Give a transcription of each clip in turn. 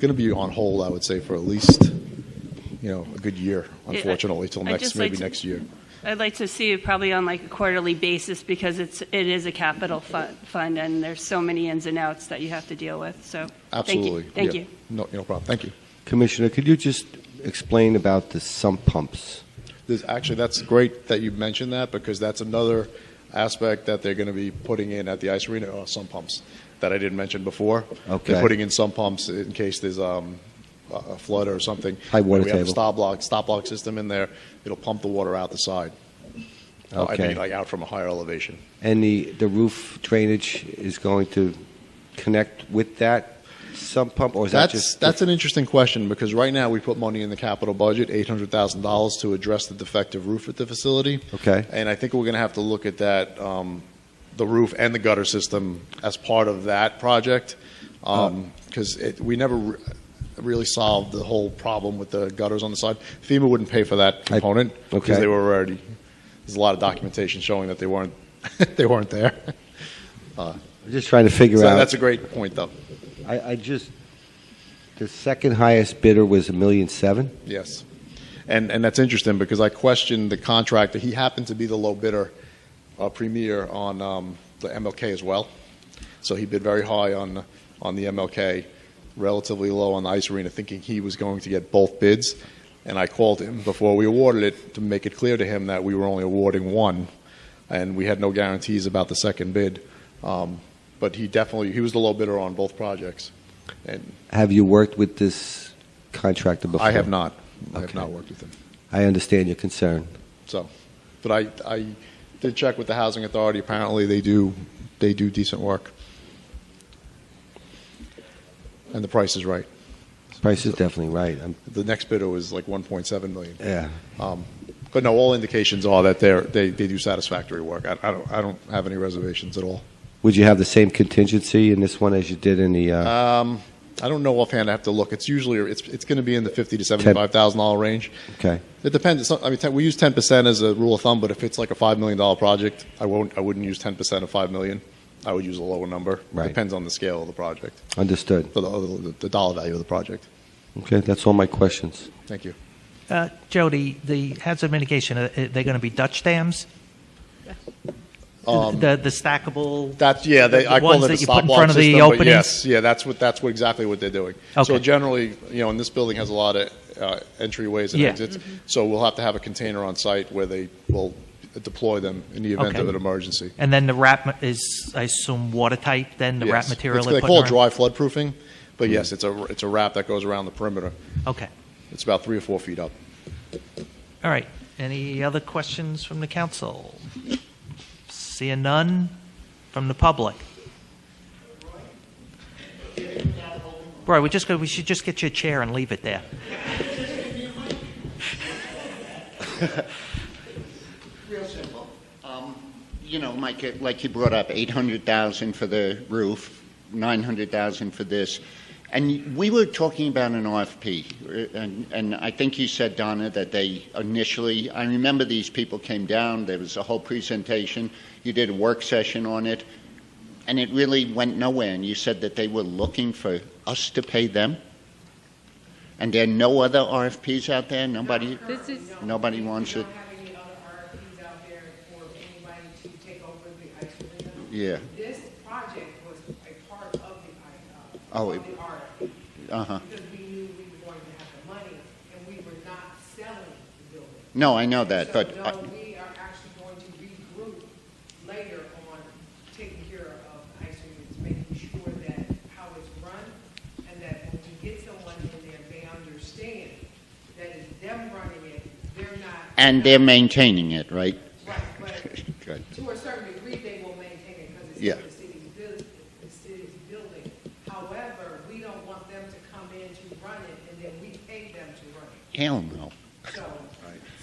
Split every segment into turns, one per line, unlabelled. going to be on hold, I would say, for at least, you know, a good year, unfortunately, till
I'd
next,
just like
maybe
to-
next year.
I'd like to see it probably on like a quarterly basis because it's, it is a capital fu- fund and there's so many ins and outs that you have to deal with, so. thank you.
Absolutely.
Thank
Yeah.
you.
No, no problem. Thank you.
Commissioner, could you just explain about the sump pumps?
There's, actually, that's great that you mentioned that because that's another aspect that they're going to be putting in at the ice arena are some pumps that I didn't mention before.
Okay.
They're putting in some pumps in case there's um, a- a flood or something.
High water
We have a
table.
stop block, stop block system in there. It'll pump the water out the side. Uh, I
Okay.
mean, like out from a higher elevation.
And the, the roof drainage is going to connect with that sump pump, or is that
That's
just?
that's an interesting question because right now we put money in the capital budget, eight hundred thousand dollars, to address the defective roof at the facility.
Okay.
And I think we're going to have to look at that, um, the roof and the gutter system as part of that project,
Oh.
because it we never re- really solved the whole problem with the gutters on the side. FEMA wouldn't pay for that
I-
component because
okay.
they were already. There's a lot of documentation showing that they weren't they weren't there.
I'm Just trying to figure
So
out.
that's a great point, though.
I, I just, the second highest bidder was a million seven?
Yes. And, and that's interesting because I questioned the contractor. He happened to be the low bidder, uh, premier on um, the MLK as well. So he bid very high on, on the MLK, relatively low on the ice arena, thinking he was going to get both bids. And I called him before we awarded it to make it clear to him that we were only awarding one and we had no guarantees about the second bid. Um, but he definitely, he was the low bidder on both projects. And
Have you worked with this contractor before?
I have not, I have
Okay.
not worked with him.
I understand your concern.
So, but I, I did check with the housing authority. Apparently, they do, they do decent work. And the price is right.
Price is definitely right. I'm,
The next bidder was like 1.7 million.
yeah.
Um, but no, all indications are that they're, they, they do satisfactory work. I, I don't, I don't have any reservations at all.
Would you have the same contingency in this one as you did in the, uh,
Um, I don't know offhand. I have to look. It's usually, it's, it's going to be in the 50 to 75,000 dollar range.
okay.
It depends. It's not- I mean, ten- we use ten percent as a rule of thumb, but if it's like a five million dollar project, I won't. I wouldn't use ten percent of five million. I would use a lower number.
Right.
Depends on the scale of the project,
Understood.
the, the, the dollar value of the project.
Okay, that's all my questions.
Thank you.
Uh, Jody, the hazard mitigation, are they going to be Dutch dams?
Um,
The, the stackable?
That's yeah. They,
the
I call
ones
it a
that you
stop
put in
block
front of the
system, but
openings?
Yes, yeah. That's what that's what exactly what they're doing. So
Okay.
generally, you know, and this building has a lot of uh, entryways and
Yeah.
exits. So we'll have to have a container on site where they will deploy them in the event
Okay.
of an emergency.
And then the wrap ma- is, I assume, watertight, then the
Yes.
wrap material?
It's-
they're
They call it
putting around-
dry flood proofing,
Hmm.
but yes, it's a it's a wrap that goes around the perimeter.
Okay,
It's about three or four feet up.
all right. Any other questions from the council? Seeing none from the public? Roy, we just, go- we should just get you a chair and leave it there.
Real simple. Um, You know, Mike, it- like you brought up, 800,000 for the roof, 900,000 for this. And we were talking about an RFP, uh, and, and I think you said, Donna, that they initially, I remember these people came down, there was a whole presentation, you did a work session on it, and it really went nowhere, and you said that they were looking for us to pay them? And there are no other RFPs out there? Nobody,
This is-
nobody wants
We
it?
don't have any other RFPs out there for anybody to take over the ice arena.
Yeah.
This project was a part of the, I- uh,
Oh,
of
it-
the RFP.
Uh-huh.
Because we knew we were going to have the money, and we were not selling the building.
No, I know that, but uh,
So,
I-
no, we are actually going to regroup later on taking care of the ice units, making sure that how it's run, and that when we get someone in there, they understand that it's them running it, they're not.
and they're maintaining it, right?
Right, but
Good.
to a certain degree, they will maintain it because
Yeah.
it's the city's building, the city's building. However, we don't want them to come in to run it, and then we pay them to run it.
Hell no.
So,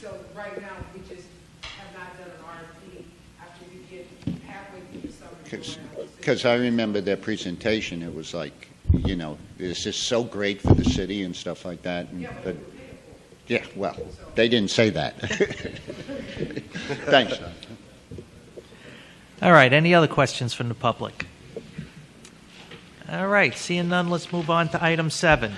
so right now, we just have not done an RFP after we get halfway through the summer. program.
Because I remember their presentation, it was like, you know, this is so great for the city and stuff like that. and-
Yeah, but
but-
we pay it for
Yeah, well, they didn't say that. Thanks. Don.
All right, any other questions from the public? All right, seeing none, let's move on to item seven.